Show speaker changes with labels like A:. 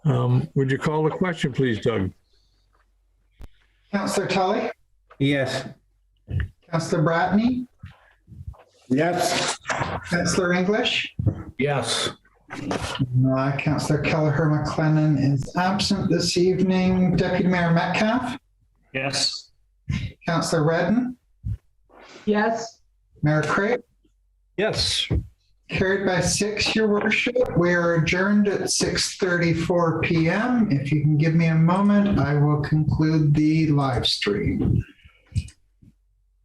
A: Um, Would you call the question, please, Doug?
B: Counselor Tully,
C: Yes.
B: Counselor Bratney,
C: Yes.
B: Counselor English,
C: Yes.
B: uh, Counselor Kelleher McLennan is absent this evening. Deputy Mayor Metcalf,
D: Yes.
B: Counselor Redden,
E: Yes,
B: Mayor Craig,
A: Yes.
B: carried by six, your worship. We are adjourned at 6:34 PM. If you can give me a moment, I will conclude the live stream.